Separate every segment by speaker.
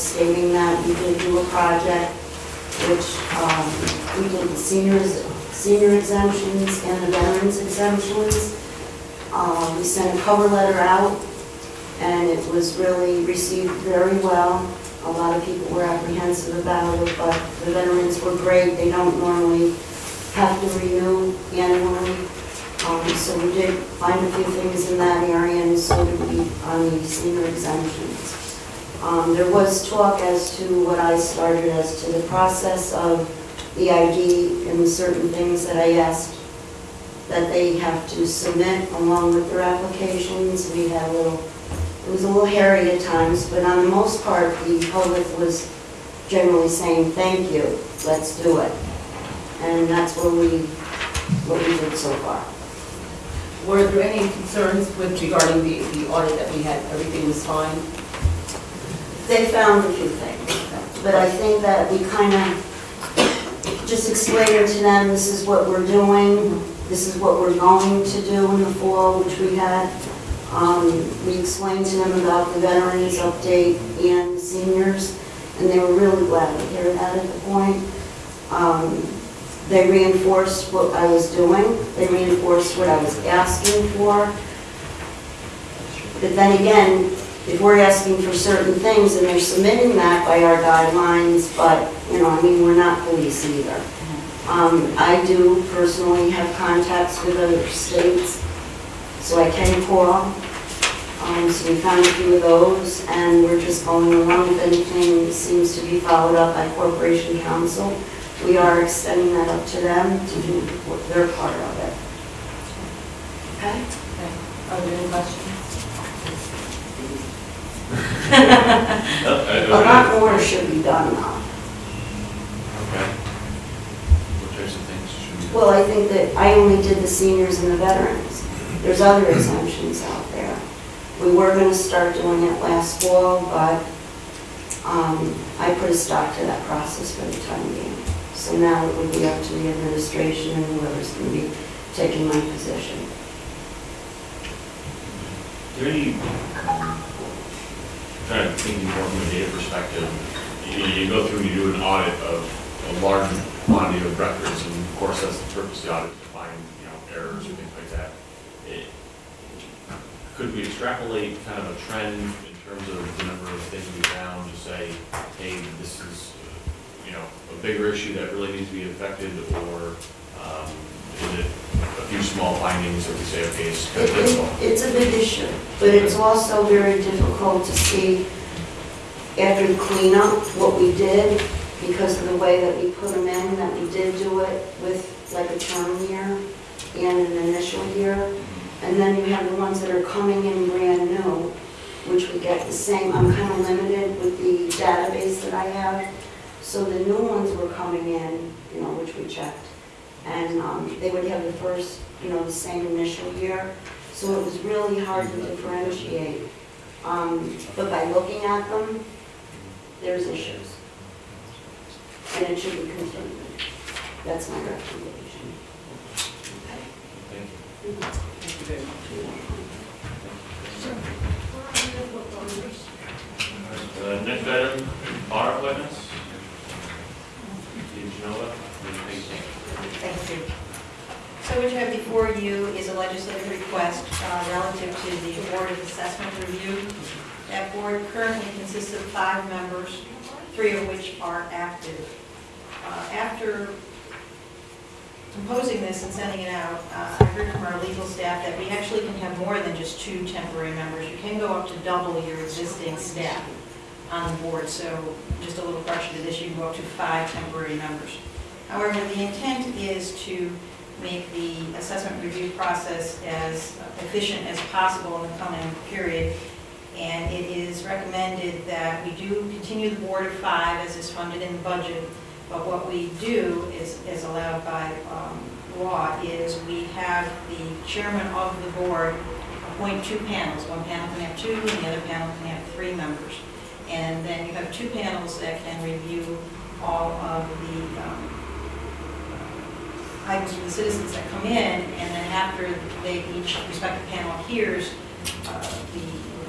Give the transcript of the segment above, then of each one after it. Speaker 1: stating that we did do a project which, um, we did seniors, senior exemptions and the veterans exemptions. Uh, we sent a cover letter out and it was really received very well. A lot of people were apprehensive about it, but the veterans were great. They don't normally have to renew annually. Um, So we did find a few things in that area, and so did we on the senior exemptions. Um, There was talk as to what I started as to the process of the ID and certain things that I asked that they have to submit along with their applications. We had a little, it was a little hairy at times, but on the most part, the public was generally saying, thank you, let's do it. And that's what we, what we did so far.
Speaker 2: Were there any concerns with regarding the, the audit that we had, everything was fine?
Speaker 1: They found a few things, but I think that we kind of just explained to them, this is what we're doing, this is what we're going to do in the fall, which we had. Um, We explained to them about the veterans update and seniors, and they were really glad to hear that at the point. Um, They reinforced what I was doing, they reinforced what I was asking for. But then again, if we're asking for certain things and they're submitting that by our guidelines, but, you know, I mean, we're not police either. Um, I do personally have contacts with other states, so I can call. Um, so we found a few of those and we're just going along if anything seems to be followed up by Corporation Council. We are extending that up to them to do what their part of it. Okay?
Speaker 2: Okay. Are there any questions?
Speaker 1: A lot more should be done now.
Speaker 3: Okay. What types of things should we do?
Speaker 1: Well, I think that I only did the seniors and the veterans. There's other exemptions out there. We were going to start doing it last fall, but um, I put a stop to that process for the time being. So now it would be up to the administration and whoever's going to be taking my position.
Speaker 3: Is there any, um, trying to think more from a data perspective, you, you go through and you do an audit of a large quantity of records, and of course, that's the purpose of the audit, to find, you know, errors or things like that. It- Could we extrapolate kind of a trend in terms of the number of things we found to say, hey, this is, uh, you know, a bigger issue that really needs to be affected, or, um, is it a few small findings that we say, okay, it's
Speaker 1: It-
Speaker 3: this
Speaker 1: it- It's a big issue, but it's also very difficult to see after the cleanup what we did because of the way that we put them in, that we did do it with like a term year and an initial year. And then you have the ones that are coming in brand new, which we get the same. I'm kind of limited with the database that I have. So the new ones were coming in, you know, which we checked. And um, they would have the first, you know, the same initial year. So it was really hard to differentiate. Um, But by looking at them, there's issues. And it should be continued. That's my recommendation.
Speaker 3: Thank you. Uh, Next item, audit witness. Did you know that? What do you think?
Speaker 4: Thank you. So what you have before you is a legislative request uh, relative to the Board of Assessment Review. That board currently consists of five members, three of which are active. Uh, After composing this and sending it out, uh, I heard from our legal staff that we actually can have more than just two temporary members. You can go up to double your existing staff on the board, so just a little correction to this, you can go up to five temporary members. However, the intent is to make the assessment review process as efficient as possible in the coming period. And it is recommended that we do continue the board of five as is funded in the budget. But what we do is, is allowed by um, law, is we have the chairman of the board appoint two panels. One panel can have two, and the other panel can have three members. And then you have two panels that can review all of the um, items from the citizens that come in, and then after they, each respective panel hears uh, the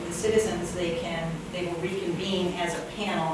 Speaker 4: the citizens, they can, they will reconvene as a panel